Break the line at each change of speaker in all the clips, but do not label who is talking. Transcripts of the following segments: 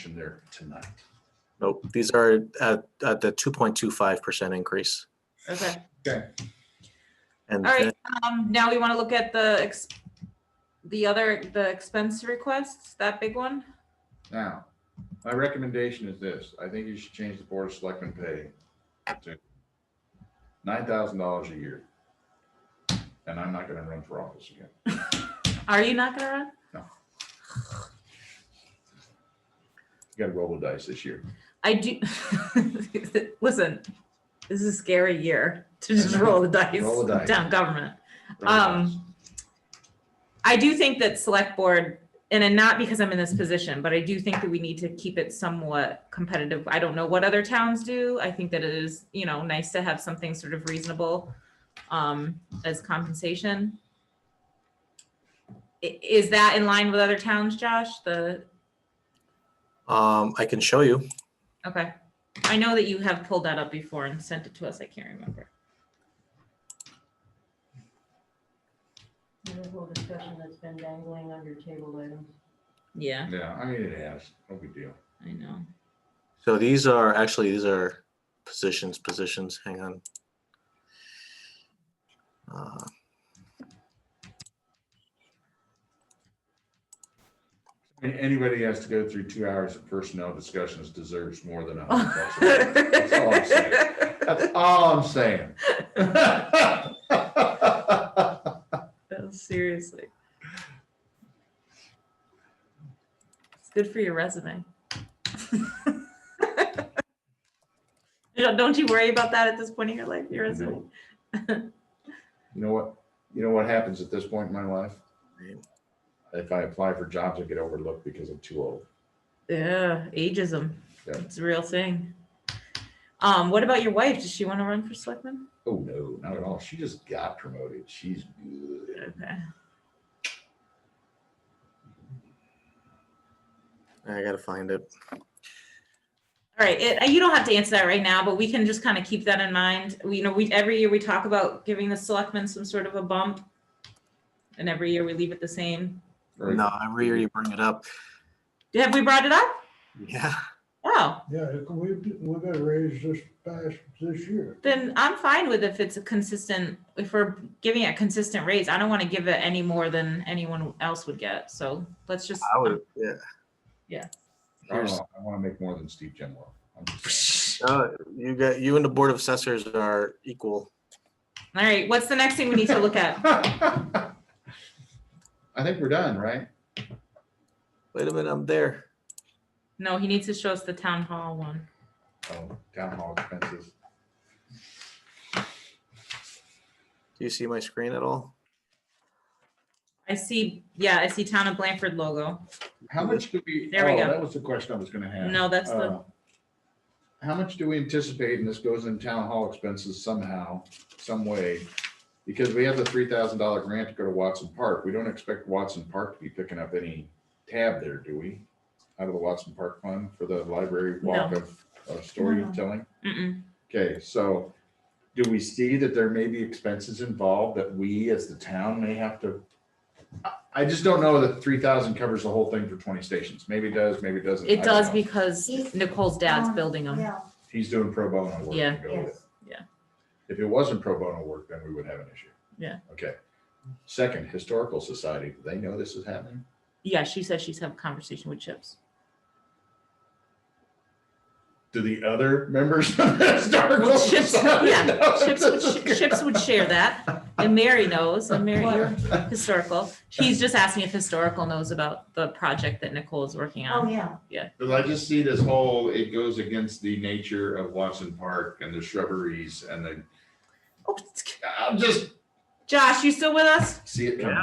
action there tonight.
Nope, these are at, at the two point two five percent increase.
Okay,
And
all
then-
right, um, now we want to look at the ex- the other, the expense requests, that big one?
Now, my recommendation is this. I think you should change the board of selectmen pay to nine thousand dollars a year. And I'm not gonna run for office again.
Are you not gonna run?
You gotta roll the dice this year.
I do, listen, this is a scary year to just roll the dice,
Roll the dice.
town government.
Roll the
Um,
dice.
I do think that select board, and then not because I'm in this position, but I do think that we need to keep it somewhat competitive. I don't know what other towns do. I think that it is, you know, nice to have something sort of reasonable um, as compensation. I- Is that in line with other towns, Josh? The,
um, I can show you.
okay. I know that you have pulled that up before and sent it to us. I can't remember.
Whole discussion that's been dangling under table items.
Yeah,
Yeah, I mean, it has, no big deal.
I know.
So these are, actually, these are positions, positions, hang on. Uh,
I mean, anybody has to go through two hours of personnel discussions deserves more than a hundred bucks. a week. That's all I'm saying.
That
That's all I'm saying.
was Seriously. It's good for your resume. You know, Don't you worry about that at this point in your life, your resume?
You know what, you know what happens at this point in my life?
Right.
If I apply for jobs, I get overlooked because I'm too old.
Yeah, ageism.
Yeah.
It's a real thing. Um, what about your wife? Does she want to run for selectman?
Oh, no, not at all. She just got promoted. She's good.
Okay.
I gotta find it.
All right, it, you don't have to answer that right now, but we can just kind of keep that in mind. We, you know, we, every year we talk about giving the selectmen some sort of a bump. And every year we leave it the same.
Or-
No, every year you bring it up.
Have we brought it up?
Yeah,
Oh,
Yeah, it- we, we got a raise this past, this year.
then I'm fine with if it's a consistent, if we're giving a consistent raise. I don't want to give it any more than anyone else would get. So let's just.
I would, yeah.
Yeah.
I don't
Here's-
know. Oh, I want to make more than Steve Genwell. I'm just-
Uh, You got, you and the Board of Assessors are equal.
All right, what's the next thing we need to look at?
I think we're done, right?
Wait a minute, I'm there.
No, he needs to show us the town hall one.
Oh, Town hall expenses.
Do you see my screen at all?
I see, yeah, I see town of Blanford logo.
How much do we?
There we
oh,
go.
That was the question I was gonna have.
No, that's the-
Uh, How much do we anticipate, and this goes in town hall expenses somehow, some way? Because we have the three thousand dollar grant to go to Watson Park. We don't expect Watson Park to be picking up any tab there, do we? Out of the Watson Park fund for the library walk
No.
of, of storytelling?
Mm-mm.
Okay, so do we see that there may be expenses involved that we as the town may have to? I- I just don't know that three thousand covers the whole thing for twenty stations. Maybe it does, maybe it doesn't. I
It
don't
does
know.
because Nicole's dad's building them.
Yeah,
He's doing pro bono work.
Yeah.
to go with it.
yes.
If it wasn't pro bono work, then we would have an issue.
Yeah.
Okay. Second, Historical Society, do they know this is happening?
Yeah, she says she's having a conversation with Chips.
Do the other members of the Historical
Well, Chips-
Society?
yeah,
know
Chips would,
this is
sh- Chips would share that, and Mary knows, and Mary, you're historical. She's just asking if historical knows about the project that Nicole is working
Oh,
on.
yeah.
Because I just see this whole, it goes against the nature of Watson Park and the shrubberies and the,
Oh, it's-
I'm just,
Josh, you still with us?
see it
Yeah.
coming.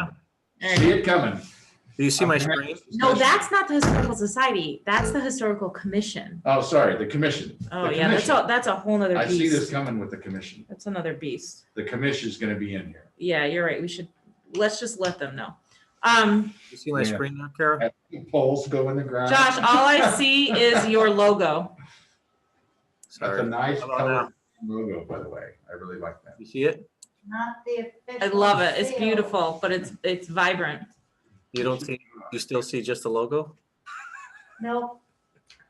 All
See
right.
it coming.
Do you see my
I'm having
screen?
this
No,
discussion.
that's not the historical society. That's the historical commission.
Oh, sorry, the commission.
Oh,
The
yeah, that's
commission.
a, that's a whole nother
I see this
beast.
coming with the commission.
That's another beast.
The commission is going to be in here.
Yeah, you're right. We should, let's just let them know. Um,
Do you see my
Yeah.
screen there, Kara?
And the Poles go in the ground.
Josh, all I see is your logo.
That's a
Sorry.
nice
How about
color logo, by the way. I really like that.
You see it?
Not the official.
I love it. It's
seal.
beautiful, but it's, it's vibrant.
You don't see, you still see just the logo?
Nope,